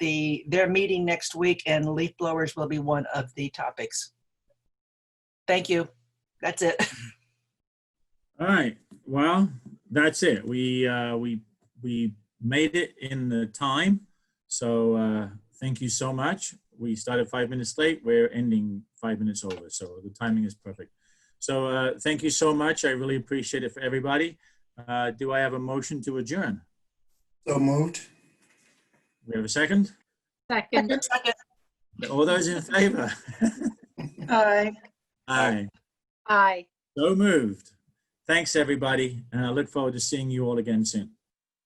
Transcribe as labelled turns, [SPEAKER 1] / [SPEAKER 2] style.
[SPEAKER 1] be, they're meeting next week and leaf blowers will be one of the topics. Thank you. That's it.
[SPEAKER 2] All right, well, that's it. We, uh, we, we made it in the time. So, uh, thank you so much. We started five minutes late. We're ending five minutes over, so the timing is perfect. So, uh, thank you so much. I really appreciate it for everybody. Uh, do I have a motion to adjourn?
[SPEAKER 3] So moved.
[SPEAKER 2] We have a second?
[SPEAKER 4] Second.
[SPEAKER 1] Second.
[SPEAKER 2] All those in favor?
[SPEAKER 4] Aye.
[SPEAKER 2] Aye,
[SPEAKER 4] Aye.
[SPEAKER 2] so moved. Thanks, everybody, and I look forward to seeing you all again soon.